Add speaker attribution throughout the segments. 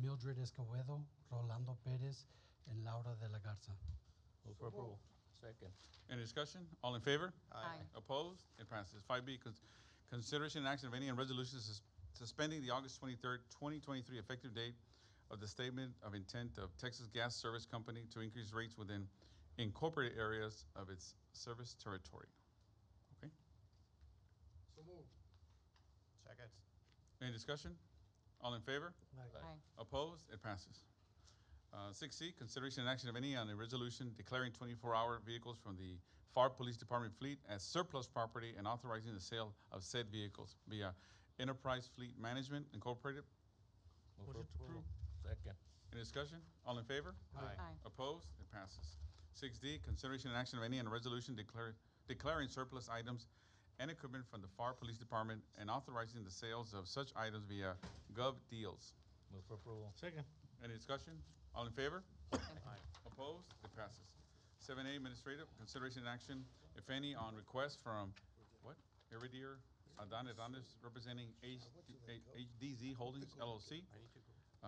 Speaker 1: Mildred Escobedo, Rolando Perez, and Laura de la Garza.
Speaker 2: Move for approval. Second.
Speaker 3: Any discussion? All in favor?
Speaker 4: Aye.
Speaker 3: Opposed? It passes. Five B, cons- consideration and action of any on resolution sus- suspending the August twenty-third, twenty twenty-three effective date of the statement of intent of Texas Gas Service Company to increase rates within incorporated areas of its service territory.
Speaker 5: So moved.
Speaker 2: Second.
Speaker 3: Any discussion? All in favor?
Speaker 2: Aye.
Speaker 4: Aye.
Speaker 3: Opposed? It passes. Uh, Six C, consideration and action of any on a resolution declaring twenty-four hour vehicles from the FAR Police Department fleet as surplus property and authorizing the sale of said vehicles via Enterprise Fleet Management Incorporated.
Speaker 2: Move for approval. Second.
Speaker 3: Any discussion? All in favor?
Speaker 2: Aye.
Speaker 4: Aye.
Speaker 3: Opposed? It passes. Six D, consideration and action of any on a resolution declare, declaring surplus items and equipment from the FAR Police Department and authorizing the sales of such items via Gov Deals.
Speaker 2: Move for approval.
Speaker 5: Second.
Speaker 3: Any discussion? All in favor?
Speaker 2: Aye.
Speaker 3: Opposed? It passes. Seven A, administrative, consideration and action, if any, on request from, what? Iridier Adan Adonis, representing H- HDZ Holdings LLC. uh,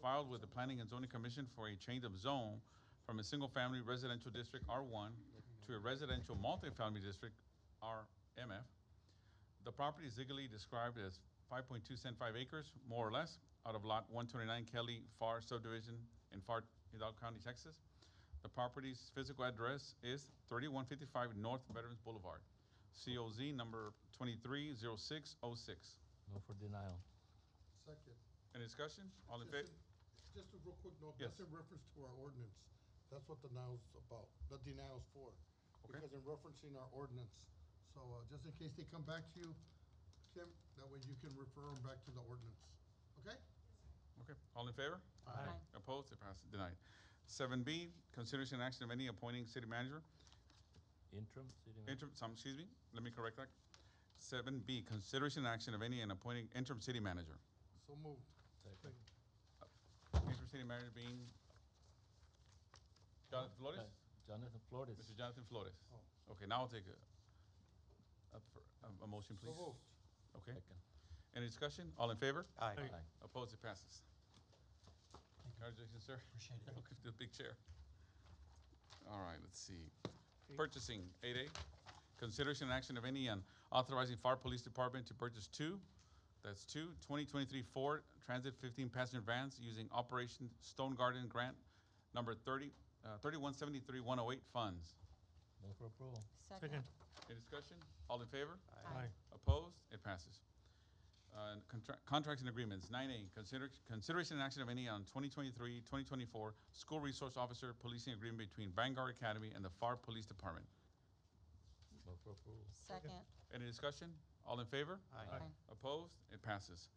Speaker 3: Filed with the Planning and Zoning Commission for a change of zone from a single-family residential district R one to a residential multifamily district RMF. The property is legally described as five point two cent five acres, more or less, out of lot one twenty-nine Kelly Far subdivision in Far Hidalgo County, Texas. The property's physical address is thirty-one fifty-five North Veterans Boulevard, COZ number twenty-three zero six oh six.
Speaker 2: Move for denial.
Speaker 5: Second.
Speaker 3: Any discussion? All in favor?
Speaker 5: Just in- Just a real quick note,
Speaker 3: Yes.
Speaker 5: that's in reference to our ordinance. That's what the now's about, the denial's for.
Speaker 3: Okay.
Speaker 5: Because in referencing our ordinance, so uh, just in case they come back to you, Kim, that way you can refer them back to the ordinance, okay?
Speaker 3: Okay, all in favor?
Speaker 4: Aye.
Speaker 3: Opposed? It passes, denied. Seven B, consideration and action of any appointing city manager
Speaker 2: Interim city manager.
Speaker 3: Interim, some, excuse me, let me correct that. Seven B, consideration and action of any and appointing interim city manager.
Speaker 5: So moved.
Speaker 2: Second.
Speaker 3: Interim city manager being Jonathan Flores?
Speaker 2: Uh, Jonathan Flores.
Speaker 3: Mr. Jonathan Flores?
Speaker 5: Oh.
Speaker 3: Okay, now I'll take a, a, fir- a, a motion,
Speaker 5: So
Speaker 3: please.
Speaker 5: moved.
Speaker 3: Okay,
Speaker 2: Second.
Speaker 3: any discussion? All in favor?
Speaker 2: Aye.
Speaker 3: Opposed? It passes. Congratulations, sir.
Speaker 1: Appreciate it.
Speaker 3: Welcome to the big chair. All right, let's see. Purchasing, eight A, consideration and action of any on authorizing fire police department to purchase two, that's two, 2023 Ford Transit fifteen passenger vans using Operation Stone Garden Grant number thirty, uh, thirty-one seventy-three one oh eight funds.
Speaker 2: Move for approval.
Speaker 4: Second.
Speaker 3: Any discussion? All in favor?
Speaker 4: Aye.
Speaker 3: Opposed? It passes. Uh, and contra- Contracts and agreements, nine A, consider, consideration and action of any on 2023-2024 school resource officer policing agreement between Vanguard Academy and the FAR Police Department.
Speaker 2: Move for approval.
Speaker 4: Second.
Speaker 3: Any discussion? All in favor?
Speaker 4: Aye.
Speaker 3: Opposed? It passes.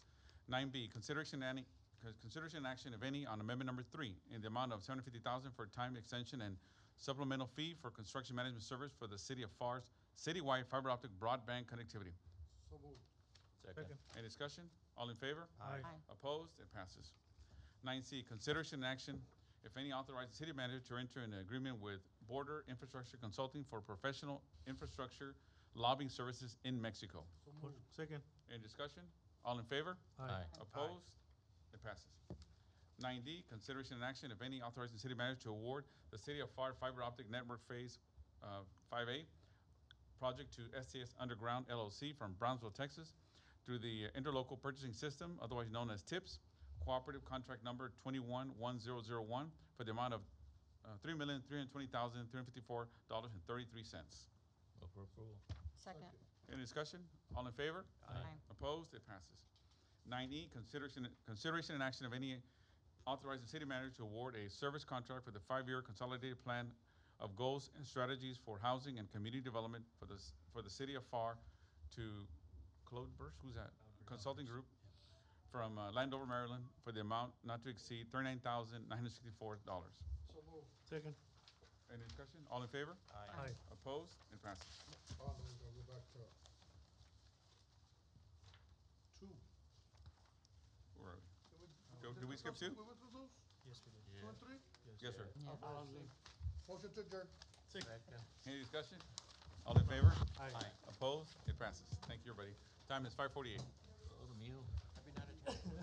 Speaker 3: Nine B, consideration and, any- con- consideration and action, if any, on amendment number three in the amount of seven hundred fifty thousand for time extension and supplemental fee for construction management service for the city of FAR's citywide fiber optic broadband connectivity.
Speaker 5: So moved.
Speaker 2: Second.
Speaker 3: Any discussion? All in favor?
Speaker 4: Aye.
Speaker 3: Opposed? It passes. Nine C, consideration and action, if any, authorize the city manager to enter an agreement with Border Infrastructure Consulting for professional infrastructure lobbying services in Mexico.
Speaker 5: So moved.
Speaker 6: Second.
Speaker 3: Any discussion? All in favor?
Speaker 2: Aye.
Speaker 3: Opposed? It passes. Nine D, consideration and action, if any, authorizing the city manager to award the City of FAR Fiber Optic Network Phase uh, Five A project to STS Underground LLC from Brownsville, Texas, through the Interlocal Purchasing System, otherwise known as TIPS, cooperative contract number twenty-one one zero zero one, for the amount of uh, three million, three hundred twenty thousand, three hundred fifty-four dollars and thirty-three cents.
Speaker 2: Move for approval.
Speaker 4: Second.
Speaker 3: Any discussion? All in favor?
Speaker 4: Aye.
Speaker 3: Opposed? It passes. Nine E, consideration, consideration and action of any authorizing city manager to award a service contract for the five-year consolidated plan of goals and strategies for housing and community development for the, s- for the city of FAR to Claude Burst, who's that? Consulting Group from uh, Landover, Maryland, for the amount not to exceed thirty-nine thousand nine hundred sixty-four dollars.
Speaker 5: So moved.
Speaker 6: Second.
Speaker 3: Any discussion? All in favor?
Speaker 6: Aye.
Speaker 3: Opposed? It passes.
Speaker 5: Oh, then we're gonna go back to two.
Speaker 3: Where are we?
Speaker 5: Did we-
Speaker 3: Go- did we skip
Speaker 5: something?
Speaker 3: two?
Speaker 5: We went through those,
Speaker 6: Yes, we did.
Speaker 5: two and three?
Speaker 3: Yes, sir.
Speaker 4: Yeah.
Speaker 5: Oh, Motion to adjourn.
Speaker 2: Second.
Speaker 3: Any discussion? All in favor?
Speaker 6: Aye.
Speaker 3: Opposed? It passes. Thank you, everybody. Time is five forty-eight.
Speaker 2: Go to meal.
Speaker 5: Happy night,